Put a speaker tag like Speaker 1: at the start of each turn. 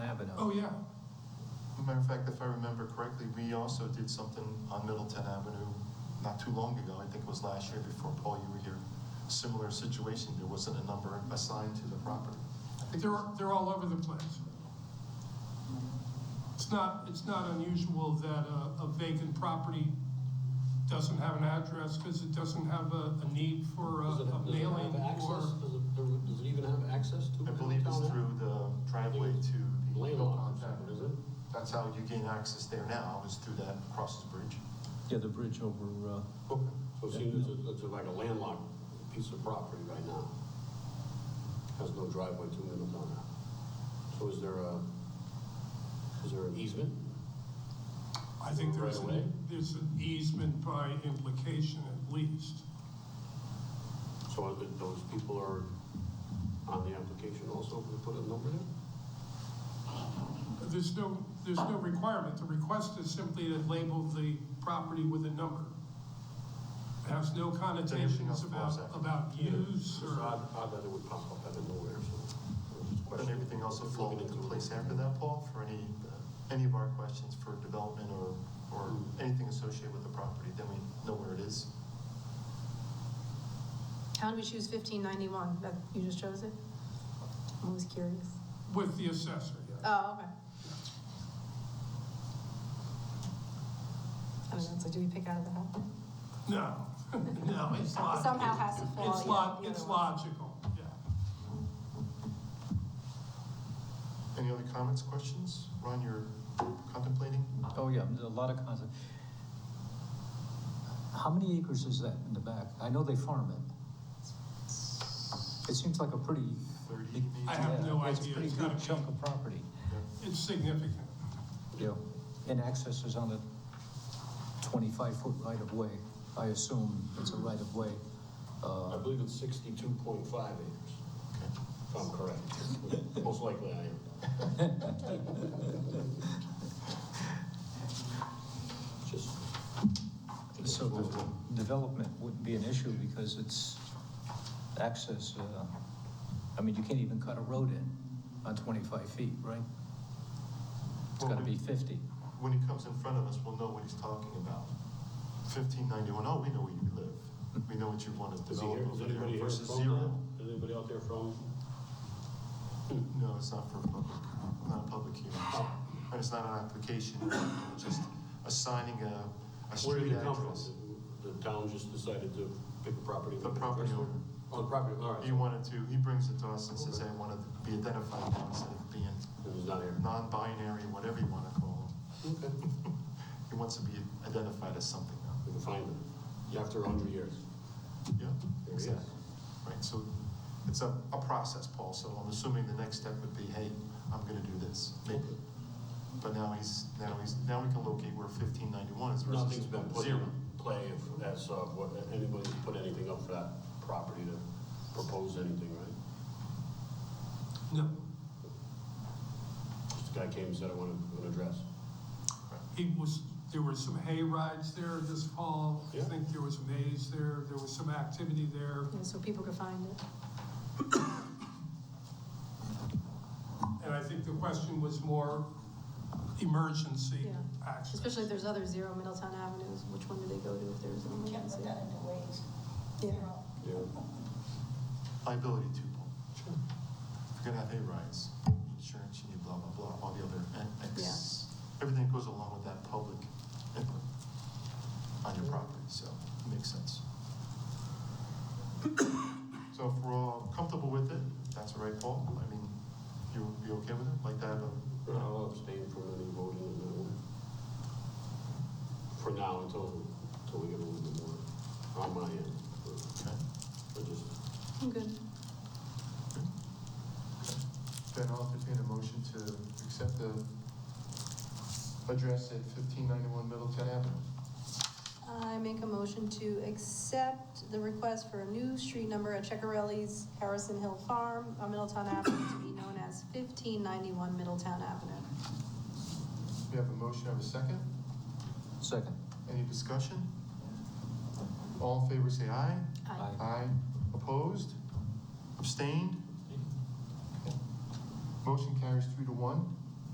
Speaker 1: Oh, yeah.
Speaker 2: Matter of fact, if I remember correctly, we also did something on Middleton Avenue not too long ago. I think it was last year before, Paul, you were here. Similar situation, there wasn't a number assigned to the property. I think
Speaker 1: They're, they're all over the place. It's not, it's not unusual that a, a vacant property doesn't have an address because it doesn't have a, a need for a
Speaker 3: Does it,
Speaker 1: a
Speaker 3: does it
Speaker 1: mailing
Speaker 3: have access?
Speaker 1: or.
Speaker 3: Does it, does it even have access to?
Speaker 2: I believe it's
Speaker 3: downtown?
Speaker 2: through the driveway to the.
Speaker 3: Landlocked, is that what is it?
Speaker 2: That's how you gain access there now, is through that crosses bridge.
Speaker 4: Yeah, the bridge over, uh,
Speaker 3: Okay. So it seems it's, a- it's like a landlocked piece of property right now. Has no driveway to Middletown. So is there a, is there an easement?
Speaker 1: I think there's,
Speaker 3: Right away.
Speaker 1: an- there's an easement by implication at least.
Speaker 3: So are th- those people are on the application also, if we put a number there?
Speaker 1: There's no, there's no requirement. The request is simply to label the property with a number. It has no connotations
Speaker 2: else falls
Speaker 1: about,
Speaker 2: out.
Speaker 1: about use
Speaker 3: It's
Speaker 1: or.
Speaker 3: odd, odd that it would pop up out of nowhere, so. I was just
Speaker 2: And
Speaker 3: questioning.
Speaker 2: everything else will fall into place after that, Paul, for any, any of our questions for development or, or anything associated with the property, then we know where it is.
Speaker 5: How did we choose fifteen ninety-one? That, you just chose it? I was curious.
Speaker 1: With the assessor, yeah.
Speaker 5: Oh, okay. I don't know, so do we pick out of the hat?
Speaker 1: No, no, it's
Speaker 5: It
Speaker 1: logical.
Speaker 5: somehow has to fall.
Speaker 1: It's
Speaker 5: yeah,
Speaker 1: log,
Speaker 5: the
Speaker 1: it's
Speaker 5: other one.
Speaker 1: logical, yeah.
Speaker 2: Any other comments, questions? Ron, you're contemplating?
Speaker 4: oh yeah, there's a lot of concept. How many acres is that in the back? I know they farm it. It seems like a pretty.
Speaker 2: 30,
Speaker 4: big-
Speaker 2: maybe?
Speaker 1: I have no
Speaker 4: yeah, It's a
Speaker 1: idea.
Speaker 4: pretty
Speaker 1: It's gotta
Speaker 4: good
Speaker 1: be-
Speaker 4: chunk of property,
Speaker 1: It's significant.
Speaker 4: yeah. And access is on a twenty-five foot right of way. I assume it's a right of way.
Speaker 3: I
Speaker 4: Uh,
Speaker 3: believe it's sixty-two point five acres. If I'm correct. Most likely I am. Just,
Speaker 4: so the development wouldn't be an issue because it's access, uh, I mean, you can't even cut a road in on twenty-five feet, right? It's gotta be fifty.
Speaker 2: When he comes in front of us, we'll know what he's talking about. 1591, oh, we know where you live. We know what you want to
Speaker 3: is he
Speaker 2: develop
Speaker 3: here, is
Speaker 2: over there
Speaker 3: anybody here
Speaker 2: versus
Speaker 3: from,
Speaker 2: zero.
Speaker 3: is anybody out there from?
Speaker 2: No, it's not for public, not a public hearing.
Speaker 3: Oh.
Speaker 2: And it's not an application, it's just assigning a, a
Speaker 3: Where
Speaker 2: street
Speaker 3: did it come from?
Speaker 2: address.
Speaker 3: The town just decided to pick a property?
Speaker 2: The property owner.
Speaker 3: Oh, the property, all right.
Speaker 2: He wanted to, he brings it to us and says, hey, I want to be identified now instead of being
Speaker 3: It was not here.
Speaker 2: non-binary, whatever you want to call
Speaker 3: Okay.
Speaker 2: him. He wants to be identified as something now.
Speaker 3: We can find it. After a hundred years.
Speaker 2: Yeah,
Speaker 3: There he is.
Speaker 2: exactly. Right, so it's a, a process, Paul, so I'm assuming the next step would be, hey, I'm gonna do this, maybe. But now he's, now he's, now we can locate where fifteen ninety-one is versus
Speaker 3: Nothing's been put in
Speaker 2: zero.
Speaker 3: play if that's, uh, what, anybody's put anything up for that property to propose anything, right?
Speaker 1: No,
Speaker 3: Just the guy came and said, I want an address.
Speaker 1: it was, there were some hay rides there this fall. I
Speaker 3: Yeah.
Speaker 1: think there was maze there, there was some activity there.
Speaker 5: Yeah, So people could find it.
Speaker 1: And I think the question was more emergency
Speaker 5: Yeah.
Speaker 1: access.
Speaker 5: Especially if there's other zero Middletown Avenues, which one do they go to if there's an
Speaker 6: Can't
Speaker 5: emergency?
Speaker 6: put that into ways.
Speaker 5: Yeah.
Speaker 3: Yeah.
Speaker 2: Liability too, Paul. If you're gonna have hay rides, insurance, you need blah, blah, blah, all the other, and X, everything that goes along with that public input on your property, so it makes sense. So if we're all comfortable with it, that's all right, Paul, I mean, you, you okay with it, like that, uh,
Speaker 3: I'll abstain from any voting in that one. For now, until, until we get a little bit more on my end. but-
Speaker 2: okay?
Speaker 3: but just-
Speaker 5: I'm good.
Speaker 2: Then I'll entertain a motion to accept the address at fifteen ninety-one Middleton Avenue.
Speaker 5: I make a motion to accept the request for a new street number at Checkarelli's Harrison Hill Farm on Middletown Avenue to be known as fifteen ninety-one Middletown Avenue.
Speaker 2: We have a motion, have a second?
Speaker 4: Second.
Speaker 2: Any discussion? All in favor, say aye.
Speaker 5: Aye.
Speaker 2: Aye. Opposed? Abstained? Okay. Motion carries three to one.